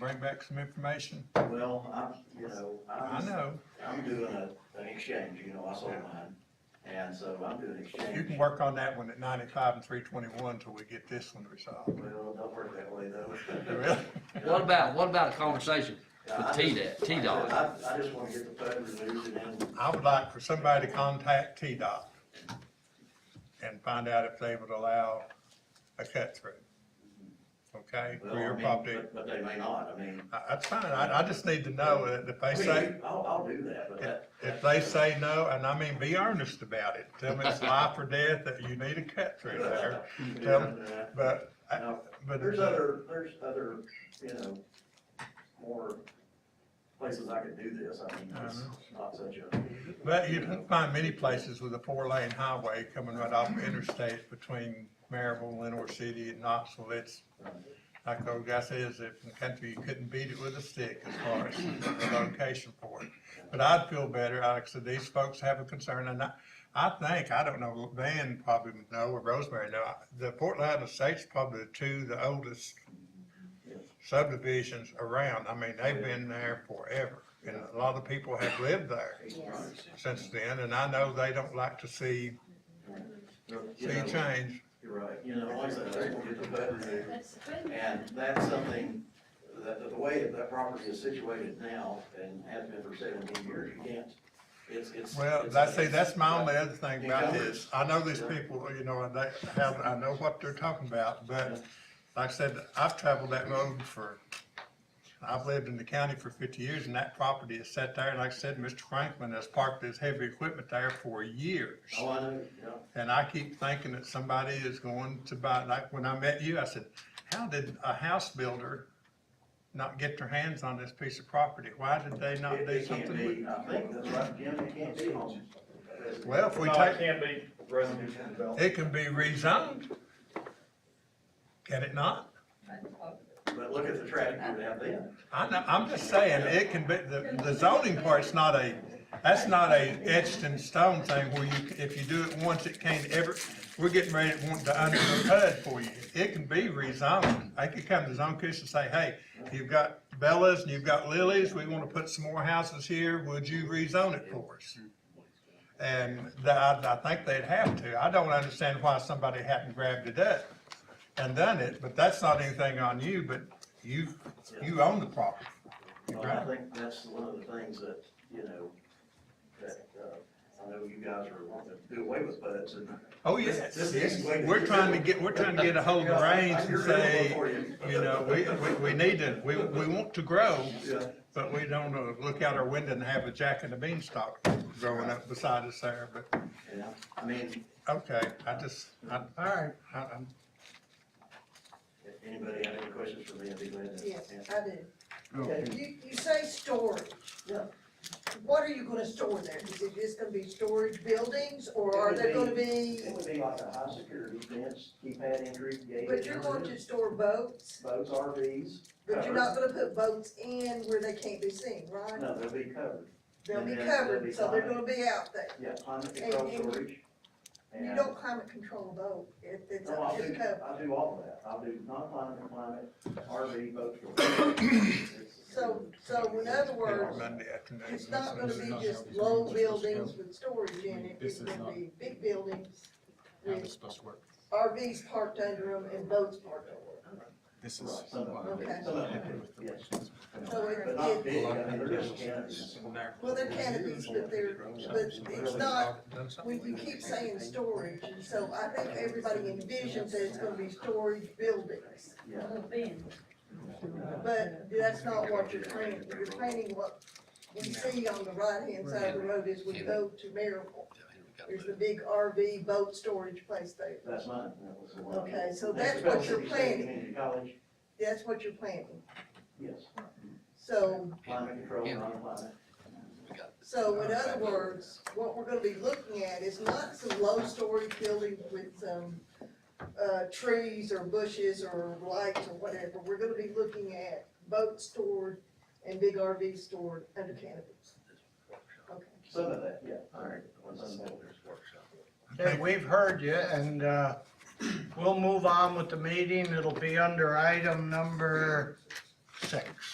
bring back some information? Well, I'm, you know, I I'm, know, I'm doing a, an exchange, you know, I sold mine, and so I'm doing you can exchange. work on that one at ninety-five and three twenty-one till we get this one resolved. Well, don't work that way though. Really? What about, what about a conversation Yeah, I with T just- dot, T dot? I, I just wanna get the PUD removed and then, I would like for somebody to contact T-Dot and find out if they would allow a cut through. Okay, well, for I your mean, property. but- But they may not, I mean. I- That's fine, I, I just need to know that if I they mean, say, I'll, I'll do that, but if, that. if they say no, and I mean, be earnest about it. Tell me it's life or death, that you need a cut through there, tell but, I- No, but. There's other, there's other, you know, more places I could do this, I mean, it's not such a. But you don't find many places with a four-lane highway coming right off the interstate between Maryville, Lenore City, and Knoxville. It's, like the old guy says, if in the country, you couldn't beat it with a stick as far as the location for it. But I'd feel better, like I said, these folks have a concern, and I, I think, I don't know, Van probably would know, or Rosemary know, the Portland and Estates probably the two, the oldest subdivisions around. I mean, they've been there forever, and a lot of people have lived there Yes. since then, and I know they don't like to see, You see know, change. You're right, you know, like I said, they're gonna get the PUD removed, That's good. And that's something, that, that the way that that property is situated now and has been for seventeen years, you can't, it's, it's. Well, it's- that's, see, it's- that's my only other thing about Encumbrance. this. I know these people, you know, and they have, I know what they're talking about, but like I said, I've traveled that road for, I've lived in the county for fifty years, and that property is set there, and like I said, Mr. Franklin has parked his heavy equipment there for years. Oh, I know, you know, And I keep thinking that somebody is going to buy, like, when I met you, I said, how did a house builder not get their hands on this piece of property? Why did they not it, do it can't something with be, I think that's right, Jim, it can't be home. Well, if we No, it take, can't be residential development. it can be rezoned. Can it not? But look at the traffic you would have then. I know, I'm just saying, it can be, the, the zoning part's not a, that's not a etched in stone thing where you, if you do it once, it can't ever, we're getting ready to want to undo the PUD for you. It can be rezoned. They could come to zone commission and say, hey, you've got Bellas and you've got Lilies, we wanna put some more houses here, would you rezone it for us? And that, I, I think they'd have to. I don't understand why somebody hadn't grabbed it up and done it, but that's not anything on you, but you, you own the property. Well, I think that's one of the things that, you know, that, uh, I know you guys are wanting to do away with buds and. Oh, yes, This- this is the way that We're you trying do to it. get, we're trying to get a hold of the reins and say, you know, we, we, we need to, we, we want to grow, Yeah. but we don't uh, look out our window and have a jack and a beanstalk growing up beside us there, but, Yeah, I mean, okay, I just, I, all right, I, I'm, if anybody have any questions for me, I'd be glad to Yes, answer. I do. Okay. You, you say storage. Yeah. What are you gonna store there? Is it just gonna be storage buildings, or are there gonna be, It would be like a high security fence, keypad entry, gate. but you're going to store boats, Boats, RVs, but you're not gonna put boats in where they can't be seen, right? no, they'll be covered, They'll be Yeah, they'll be covered, so they're fine. gonna be out there. yeah, climate control And- and- storage. You and- don't climate control a boat if it's No, I'll up do, to code. I'll do all of that, I'll do non-climate, and climate, RV, boat storage. So, so in other words, Monday afternoon. it's not gonna be just low buildings with storage in it, it's gonna be big buildings with supposed to work. RVs parked under them and boats parked over This Right, some of Okay. them, some of them, yes, them. So but it, not it, big, I mean, they're just cannons. well, they're canopies, but they're, but it's not, when you keep saying storage, and so I think everybody envisions that it's gonna be storage buildings. yeah. But that's not what you're planning, you're planning what we see on the right-hand side of the road as we go to Maryville. There's the big RV boat storage place there, That's mine, that was the one. Okay, so And that's the what you're City planning. Community College, that's what you're planning. yes, So climate control, non-climate, So in other words, what we're gonna be looking at is not some low storage buildings with some, uh, trees or bushes or lights or whatever. We're gonna be looking at boats stored and big RVs stored under canopies. Okay. some of that, yeah, all right. on some boulders. Okay, we've heard you, and, uh, we'll move on with the meeting. It'll be under item number six.